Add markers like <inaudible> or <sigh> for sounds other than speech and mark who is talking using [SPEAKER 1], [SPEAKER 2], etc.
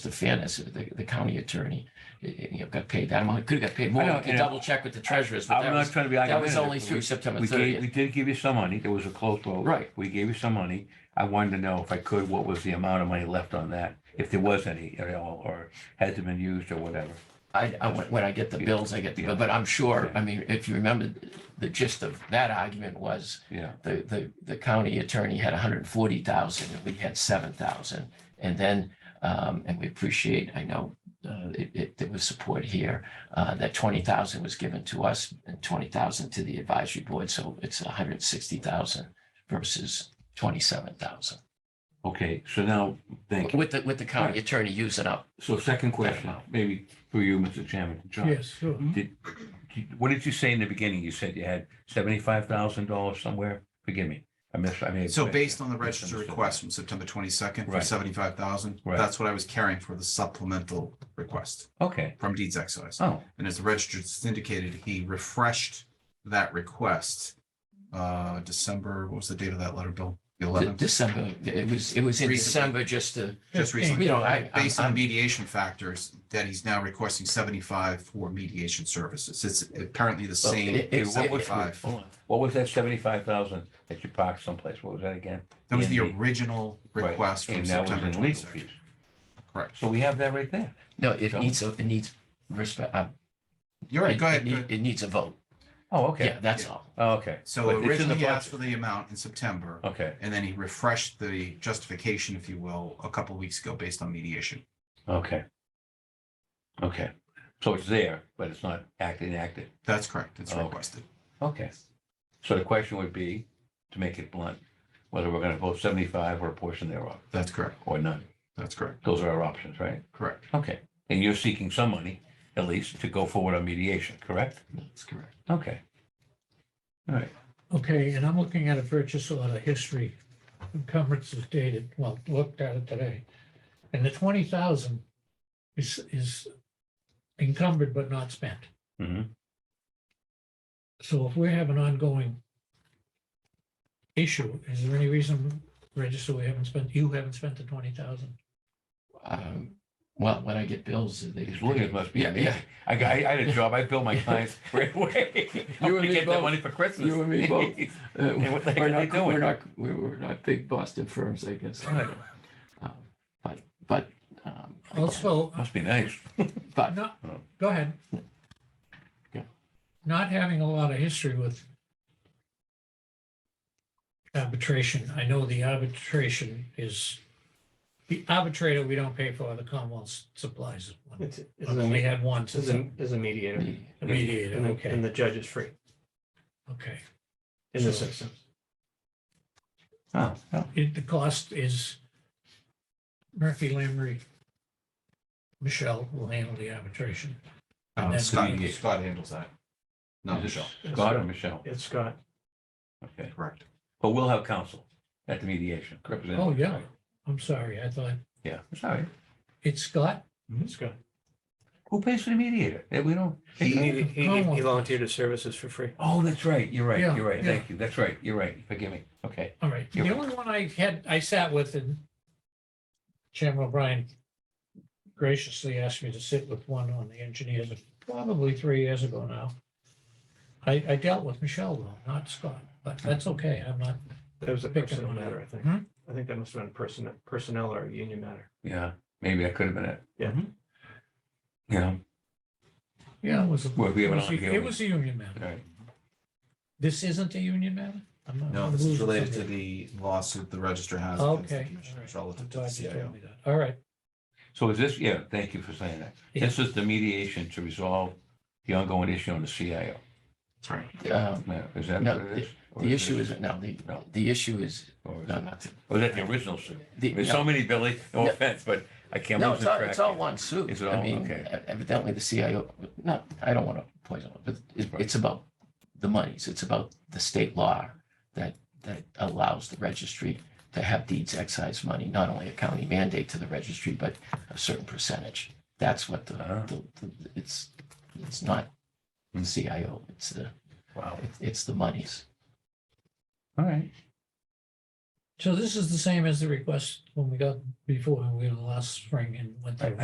[SPEAKER 1] the fairness of the, the county attorney, eh, eh, you know, got paid that amount. Could have got paid more.
[SPEAKER 2] I know,
[SPEAKER 1] We can
[SPEAKER 2] you know,
[SPEAKER 1] double check with the treasurers, but
[SPEAKER 2] I'm
[SPEAKER 1] that
[SPEAKER 2] not
[SPEAKER 1] was,
[SPEAKER 2] trying to be
[SPEAKER 1] that was
[SPEAKER 2] argumentative.
[SPEAKER 1] only through September
[SPEAKER 2] We gave, we
[SPEAKER 1] thirtieth.
[SPEAKER 2] did give you some money. There was a close vote.
[SPEAKER 1] Right.
[SPEAKER 2] We gave you some money. I wanted to know if I could, what was the amount of money left on that? If there was any at all, or has it been used or whatever?
[SPEAKER 1] I, I, when when I get the
[SPEAKER 2] Yeah.
[SPEAKER 1] bills, I get the,
[SPEAKER 2] Yeah.
[SPEAKER 1] bill. but I'm sure,
[SPEAKER 2] Yeah.
[SPEAKER 1] I mean, if you remember, the gist of that argument was
[SPEAKER 2] Yeah.
[SPEAKER 1] the, the, the county attorney had hundred and forty thousand, and we had seven thousand. And then, um, and we appreciate, I know, uh, it, it, there was support here, uh, that twenty thousand was given to us and twenty thousand to the advisory board, so it's hundred and sixty thousand versus twenty-seven thousand.
[SPEAKER 2] Okay, so now, thank you.
[SPEAKER 1] With the, with the county attorney using up,
[SPEAKER 2] So second question, maybe for you, Mr. Chairman, John.
[SPEAKER 3] Yes, sure.
[SPEAKER 2] Did, did- what did you say in the beginning? You said you had seventy-five thousand dollars somewhere? Forgive me. I missed, I mean.
[SPEAKER 4] So based on the register
[SPEAKER 2] misunderstood.
[SPEAKER 4] request from September twenty-second for
[SPEAKER 2] Right.
[SPEAKER 4] seventy-five thousand,
[SPEAKER 2] Right.
[SPEAKER 4] that's what I was carrying for the supplemental request
[SPEAKER 2] Okay.
[SPEAKER 4] from deeds excise.
[SPEAKER 2] Oh,
[SPEAKER 4] And as the register indicated, he refreshed that request. Uh, December, what was the date of that letter, Bill? The
[SPEAKER 1] De-
[SPEAKER 4] eleventh,
[SPEAKER 1] December, it was, it was in
[SPEAKER 4] Recently.
[SPEAKER 1] December, just to,
[SPEAKER 4] just recently.
[SPEAKER 1] you know, I, I'm-
[SPEAKER 4] Based on
[SPEAKER 1] I'm-
[SPEAKER 4] mediation factors, that he's now requesting seventy-five for mediation services. It's apparently the
[SPEAKER 1] Well,
[SPEAKER 4] same
[SPEAKER 1] it- it's-
[SPEAKER 4] seventy-five.
[SPEAKER 1] hold on.
[SPEAKER 2] what was that seventy-five thousand that you parked someplace? What was that again?
[SPEAKER 4] That was the
[SPEAKER 2] in the-
[SPEAKER 4] original
[SPEAKER 2] Right,
[SPEAKER 4] request from
[SPEAKER 2] And that was
[SPEAKER 4] September
[SPEAKER 2] in legal
[SPEAKER 4] twenty-second.
[SPEAKER 2] fees.
[SPEAKER 4] Correct.
[SPEAKER 2] So we have that right there.
[SPEAKER 1] no, it
[SPEAKER 2] Go.
[SPEAKER 1] needs, a it needs respect, uh,
[SPEAKER 4] You're right,
[SPEAKER 1] it,
[SPEAKER 4] go ahead.
[SPEAKER 1] it
[SPEAKER 4] go
[SPEAKER 1] need-
[SPEAKER 4] ahead.
[SPEAKER 1] it needs a vote.
[SPEAKER 2] Oh,
[SPEAKER 1] Yeah,
[SPEAKER 2] okay.
[SPEAKER 1] that's
[SPEAKER 4] Yeah.
[SPEAKER 1] all.
[SPEAKER 2] Oh, Okay.
[SPEAKER 4] So
[SPEAKER 2] But it's in the
[SPEAKER 4] originally he
[SPEAKER 2] budget.
[SPEAKER 4] asked for the amount in September,
[SPEAKER 2] Okay,
[SPEAKER 4] and then he refreshed the justification, if you will, a couple weeks ago based on mediation.
[SPEAKER 2] okay. Okay. So it's there, but it's not act enacted.
[SPEAKER 4] That's correct. It's
[SPEAKER 2] Okay.
[SPEAKER 4] requested.
[SPEAKER 2] Okay. So the question would be, to make it blunt, whether we're going to vote seventy-five or a portion thereof,
[SPEAKER 4] That's correct.
[SPEAKER 2] or none.
[SPEAKER 4] That's correct.
[SPEAKER 2] Those are our options, right?
[SPEAKER 4] Correct.
[SPEAKER 2] Okay. And you're seeking some money, at least, to go forward on mediation, correct?
[SPEAKER 1] That's correct.
[SPEAKER 2] Okay. All right.
[SPEAKER 3] Okay, and I'm looking at a purchase order history. Encumbrance is dated, well, looked at it today. And the twenty thousand is, is encumbered but not spent.
[SPEAKER 2] Mhm.
[SPEAKER 3] So if we have an ongoing issue, is there any reason, Register, we haven't spent, you haven't spent the twenty thousand?
[SPEAKER 1] Um, well, when I get bills, they.
[SPEAKER 2] These lawyers must be
[SPEAKER 1] Yeah, yeah.
[SPEAKER 2] amazing. I, got- I had a job. I billed my clients <laughs> right away. I
[SPEAKER 1] You and
[SPEAKER 2] want <laughs> to
[SPEAKER 1] me
[SPEAKER 2] get that
[SPEAKER 1] both.
[SPEAKER 2] money for Christmas.
[SPEAKER 1] You and me
[SPEAKER 2] <laughs>
[SPEAKER 1] both. Uh,
[SPEAKER 2] Yeah, what the heck
[SPEAKER 1] we're
[SPEAKER 2] are they
[SPEAKER 1] not- We're
[SPEAKER 2] doing?
[SPEAKER 1] not, we're, we're not big Boston firms, I guess.
[SPEAKER 2] Right.
[SPEAKER 1] Um, But, but, um,
[SPEAKER 3] Also,
[SPEAKER 2] Must be nice.
[SPEAKER 1] but,
[SPEAKER 3] not, go ahead.
[SPEAKER 1] Yeah.
[SPEAKER 3] Not having a lot of history with arbitration. I know the arbitration is, the arbitrator we don't pay for, the Commonwealth supplies. one.
[SPEAKER 5] It's, it's a,
[SPEAKER 3] We had one,
[SPEAKER 5] it's a, it's a mediator.
[SPEAKER 3] a mediator,
[SPEAKER 5] And the-
[SPEAKER 3] okay,
[SPEAKER 5] And the judge is free
[SPEAKER 3] okay.
[SPEAKER 5] in this
[SPEAKER 3] So-
[SPEAKER 5] instance.
[SPEAKER 2] Oh, yeah.
[SPEAKER 3] It, the cost is Murphy, Lamry, Michelle will handle the arbitration.
[SPEAKER 4] Uh,
[SPEAKER 3] And then
[SPEAKER 4] Scott,
[SPEAKER 3] we-
[SPEAKER 4] Scott handles that.
[SPEAKER 2] Is it
[SPEAKER 4] Not Michelle.
[SPEAKER 2] Scott or Michelle?
[SPEAKER 5] It's Scott.
[SPEAKER 2] Okay.
[SPEAKER 4] Correct.
[SPEAKER 2] But we'll have counsel at the mediation.
[SPEAKER 3] Oh, yeah, I'm sorry, I thought,
[SPEAKER 2] Yeah, it's all right.
[SPEAKER 3] it's Scott?
[SPEAKER 5] It's Scott.
[SPEAKER 2] Who pays for the mediator? Eh, We don't.
[SPEAKER 5] He, he, he-
[SPEAKER 3] Commonwealth.
[SPEAKER 5] he volunteered his services for free.
[SPEAKER 2] Oh, that's right. You're right.
[SPEAKER 3] Yeah,
[SPEAKER 2] You're right.
[SPEAKER 3] yeah.
[SPEAKER 2] Thank you. That's right. You're right. Forgive me. Okay.
[SPEAKER 3] All right, the
[SPEAKER 2] You're
[SPEAKER 3] only one I had, I sat with and Chairman O'Brien graciously asked me to sit with one on the engineers, probably three years ago now. I, I dealt with Michelle though, not Scott, but that's okay, I'm not,
[SPEAKER 5] That was a
[SPEAKER 3] Pick up
[SPEAKER 5] personnel
[SPEAKER 3] on that.
[SPEAKER 5] matter, I think.
[SPEAKER 3] Hmm?
[SPEAKER 5] I think that must have been personnel, personnel or union matter.
[SPEAKER 2] Yeah, maybe that could have been it.
[SPEAKER 5] Yeah.
[SPEAKER 2] Yeah,
[SPEAKER 3] yeah, it was. a-
[SPEAKER 2] Well, we have
[SPEAKER 3] Mm-hmm. It
[SPEAKER 2] an
[SPEAKER 3] was a-
[SPEAKER 2] ongoing-
[SPEAKER 3] it was a union
[SPEAKER 2] all
[SPEAKER 3] matter.
[SPEAKER 2] right.
[SPEAKER 3] This isn't a union matter? I'm not-
[SPEAKER 4] No,
[SPEAKER 3] I'm
[SPEAKER 4] this is
[SPEAKER 3] losing
[SPEAKER 4] related to
[SPEAKER 3] something.
[SPEAKER 4] the lawsuit the register has. against the
[SPEAKER 3] Okay.
[SPEAKER 4] commission
[SPEAKER 3] all right. I'm
[SPEAKER 4] Relative to the
[SPEAKER 3] glad you told
[SPEAKER 4] CIO.
[SPEAKER 3] me that. All right,
[SPEAKER 2] So is this, yeah, thank you for saying that.
[SPEAKER 3] Yeah.
[SPEAKER 2] This is the mediation to resolve the ongoing issue on the CIO.
[SPEAKER 4] That's right.
[SPEAKER 1] uh,
[SPEAKER 2] Now, Is that
[SPEAKER 1] No,
[SPEAKER 2] what it is? Or
[SPEAKER 1] the issue
[SPEAKER 2] this-
[SPEAKER 1] is, no, the,
[SPEAKER 2] No.
[SPEAKER 1] the issue is,
[SPEAKER 2] Or is
[SPEAKER 1] no,
[SPEAKER 2] it-
[SPEAKER 1] not. the-
[SPEAKER 2] or is that the original suit?
[SPEAKER 1] the-
[SPEAKER 2] There's
[SPEAKER 1] no.
[SPEAKER 2] so many, Billy, no
[SPEAKER 1] No.
[SPEAKER 2] offense, but I can't
[SPEAKER 1] No,
[SPEAKER 2] lose
[SPEAKER 1] it's
[SPEAKER 2] the
[SPEAKER 1] all,
[SPEAKER 2] track.
[SPEAKER 1] it's all one suit.
[SPEAKER 2] Is it all?
[SPEAKER 1] I mean, e,
[SPEAKER 2] Okay.
[SPEAKER 1] evidently the CIO, not, I don't want to poison it, but it,
[SPEAKER 2] Right.
[SPEAKER 1] it's about the monies. It's about the state law that, that allows the registry to have deeds excise money, not only a county mandate to the registry, but a certain percentage. That's what the,
[SPEAKER 2] Ah. Hmm.
[SPEAKER 1] the, the- it's, it's not the CIO, it's the,
[SPEAKER 2] Wow,
[SPEAKER 1] it's- it's the monies.
[SPEAKER 2] all right.
[SPEAKER 3] So this is the same as the request when we got before, we were last spring and went through.